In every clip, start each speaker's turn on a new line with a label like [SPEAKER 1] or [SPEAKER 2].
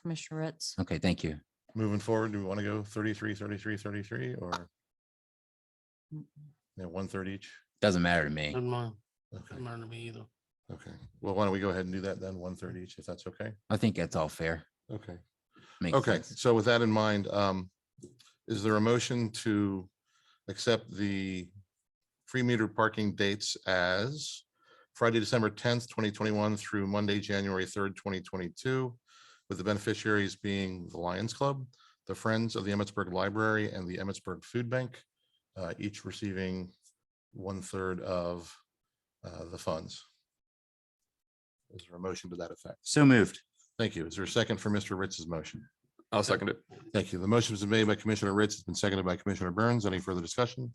[SPEAKER 1] Commissioner Ritz.
[SPEAKER 2] Okay, thank you.
[SPEAKER 3] Moving forward, do we want to go 33, 33, 33, or
[SPEAKER 1] Mm.
[SPEAKER 3] you know, one third each?
[SPEAKER 2] Doesn't matter to me.
[SPEAKER 4] Doesn't mind,
[SPEAKER 3] Okay,
[SPEAKER 4] doesn't matter to me either.
[SPEAKER 3] okay. Well, why don't we go ahead and do that then, one third each, if that's okay?
[SPEAKER 2] I think that's all fair.
[SPEAKER 3] Okay.
[SPEAKER 2] Makes
[SPEAKER 3] Okay,
[SPEAKER 2] sense.
[SPEAKER 3] so with that in mind, um, is there a motion to accept the free meter parking dates as Friday, December tenth, twenty twenty-one through Monday, January third, twenty twenty-two, with the beneficiaries being the Lions Club, the Friends of the Emmitsburg Library, and the Emmitsburg Food Bank, uh, each receiving one-third of uh, the funds. Is there a motion to that effect?
[SPEAKER 5] So moved.
[SPEAKER 3] Thank you. Is there a second for Mr. Ritz's motion?
[SPEAKER 6] I'll second it.
[SPEAKER 3] Thank you. The motion was made by Commissioner Ritz, it's been seconded by Commissioner Burns. Any further discussion?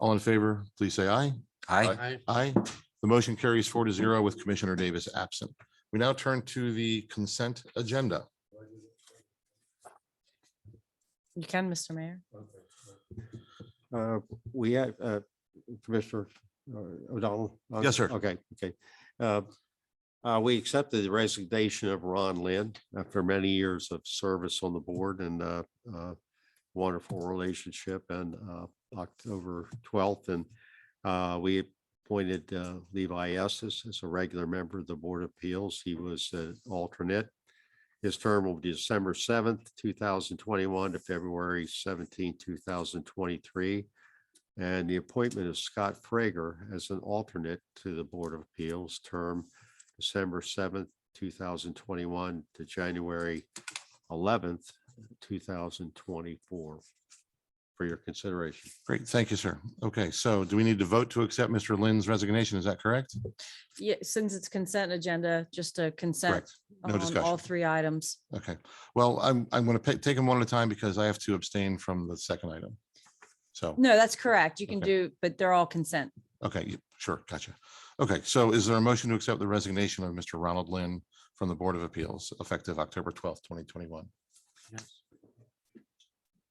[SPEAKER 3] All in favor, please say aye.
[SPEAKER 2] Aye.
[SPEAKER 4] I,
[SPEAKER 3] Aye. The motion carries four to zero with Commissioner Davis absent. We now turn to the consent agenda.
[SPEAKER 1] You can, Mr. Mayor.
[SPEAKER 7] Uh, We have, uh, Commissioner uh, O'Donnell? uh,
[SPEAKER 3] Yes, sir.
[SPEAKER 7] Okay, okay. Uh, uh, We accepted the resignation of Ron Lynn after many years of service on the board and uh, uh, wonderful relationship and uh, October 12th. And uh, we appointed uh, Levi Estes as a regular member of the Board of Appeals. He was an alternate. His term will be December seventh, two thousand twenty-one to February seventeenth, two thousand twenty-three. And the appointment of Scott Frager as an alternate to the Board of Appeals term December seventh, two thousand twenty-one to January eleventh, two thousand twenty-four. For your consideration.
[SPEAKER 3] Great, thank you, sir. Okay, so do we need to vote to accept Mr. Lynn's resignation? Is that correct?
[SPEAKER 1] Yeah, since it's consent agenda, just a consent
[SPEAKER 3] Correct.
[SPEAKER 1] on
[SPEAKER 3] No
[SPEAKER 1] all
[SPEAKER 3] discussion.
[SPEAKER 1] three items.
[SPEAKER 3] Okay, well, I'm, I'm going to take them one at a time because I have to abstain from the second item. So.
[SPEAKER 1] No, that's correct. You can
[SPEAKER 3] Okay.
[SPEAKER 1] do, but they're all consent.
[SPEAKER 3] Okay, you- sure, gotcha. Okay, so is there a motion to accept the resignation of Mr. Ronald Lynn from the Board of Appeals effective October twelfth, twenty twenty-one?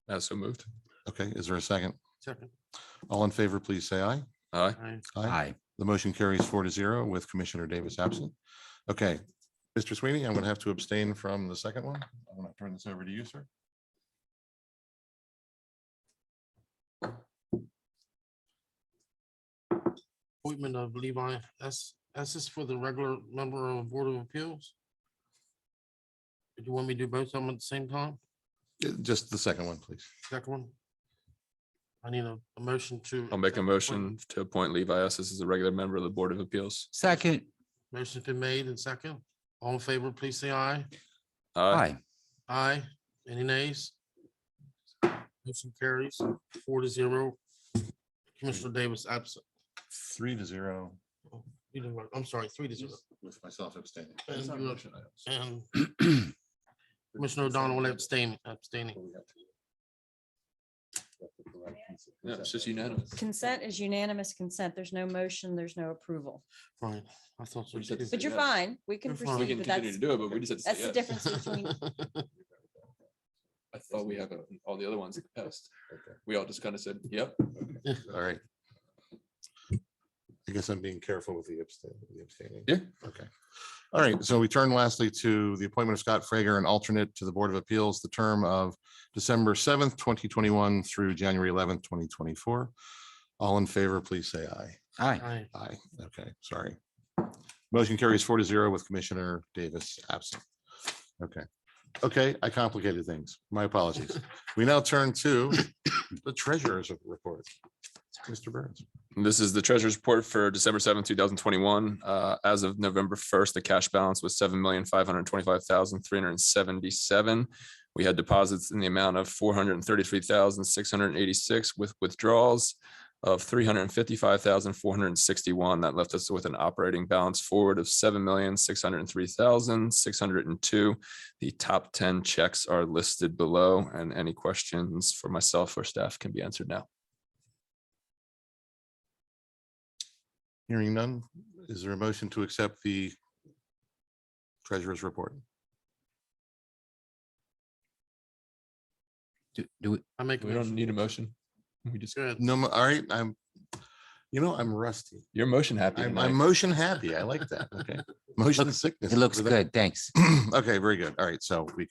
[SPEAKER 6] Uh, so moved.
[SPEAKER 3] Okay, is there a second?
[SPEAKER 4] second,
[SPEAKER 3] All in favor, please say aye.
[SPEAKER 6] Aye.
[SPEAKER 4] I,
[SPEAKER 2] Aye.
[SPEAKER 3] The motion carries four to zero with Commissioner Davis absent. Okay, Mr. Sweeney, I'm going to have to abstain from the second one. I'm going to turn this over to you, sir.
[SPEAKER 4] appointment of Levi, that's, that's just for the regular member of Board of Appeals? Do you want me to do both of them at the same time?
[SPEAKER 3] Uh, Just the second one, please.
[SPEAKER 4] Second one? I need a, a motion to.
[SPEAKER 6] I'll make
[SPEAKER 4] accept the
[SPEAKER 6] a motion
[SPEAKER 4] appointment.
[SPEAKER 6] to appoint Levi Estes as a regular member of the Board of Appeals.
[SPEAKER 2] Second.
[SPEAKER 4] Motion's been made and second. All in favor, please say aye.
[SPEAKER 2] Aye.
[SPEAKER 4] Aye. Any nays? Motion carries four to zero. Commissioner Davis absent.
[SPEAKER 3] Three to zero.
[SPEAKER 4] You didn't vote. I'm sorry, three to zero.
[SPEAKER 3] With myself abstaining.
[SPEAKER 4] And
[SPEAKER 3] It's not a
[SPEAKER 4] you-
[SPEAKER 3] motion item.
[SPEAKER 4] And Commissioner O'Donnell abstaining, abstaining.
[SPEAKER 6] Yeah, it's just unanimous.
[SPEAKER 1] Consent is unanimous consent. There's no motion, there's no approval.
[SPEAKER 4] Right. I thought so
[SPEAKER 6] We said
[SPEAKER 4] too.
[SPEAKER 6] to
[SPEAKER 1] But
[SPEAKER 6] say
[SPEAKER 1] you're
[SPEAKER 6] yes.
[SPEAKER 1] fine. We can
[SPEAKER 4] You're fine.
[SPEAKER 6] We
[SPEAKER 1] proceed,
[SPEAKER 6] can
[SPEAKER 1] but
[SPEAKER 6] continue
[SPEAKER 1] that's,
[SPEAKER 6] to do it, but we just had to
[SPEAKER 1] that's
[SPEAKER 6] say
[SPEAKER 1] the
[SPEAKER 6] yes.
[SPEAKER 1] difference between,
[SPEAKER 6] I thought we had uh, all the other ones in the past. We all just kind of said, yep.
[SPEAKER 3] All right. I guess I'm being careful with the abstain- the abstaining.
[SPEAKER 6] Yeah.
[SPEAKER 3] Okay. All right. So we turn lastly to the appointment of Scott Frager, an alternate to the Board of Appeals, the term of December seventh, twenty twenty-one through January eleventh, twenty twenty-four. All in favor, please say aye.
[SPEAKER 2] Aye.
[SPEAKER 4] Aye.
[SPEAKER 3] Aye. Okay, sorry. Motion carries four to zero with Commissioner Davis absent. Okay. Okay, I complicated things. My apologies. We now turn to the treasurer's report. Mr. Burns.
[SPEAKER 6] This is the treasurer's report for December seventh, two thousand twenty-one. Uh, as of November first, the cash balance was seven million, five hundred twenty-five thousand, three hundred and seventy-seven. We had deposits in the amount of four hundred and thirty-three thousand, six hundred and eighty-six with withdrawals of three hundred and fifty-five thousand, four hundred and sixty-one. That left us with an operating balance forward of seven million, six hundred and three thousand, six hundred and two. The top ten checks are listed below and any questions for myself or staff can be answered now.
[SPEAKER 3] Hearing none, is there a motion to accept the treasurer's report?
[SPEAKER 2] Do, do, we-
[SPEAKER 4] I make. a
[SPEAKER 6] We don't
[SPEAKER 4] motion.
[SPEAKER 6] need a motion. We just
[SPEAKER 4] Good.
[SPEAKER 3] No, mo- all right, I'm, You know, I'm rusty.
[SPEAKER 6] Your motion happy.
[SPEAKER 3] I'm,
[SPEAKER 6] tonight.
[SPEAKER 3] I'm motion happy. I like that. Okay. Motion sickness.
[SPEAKER 2] It looks
[SPEAKER 3] over there.
[SPEAKER 2] good. Thanks.
[SPEAKER 3] Okay, very good. All right. So we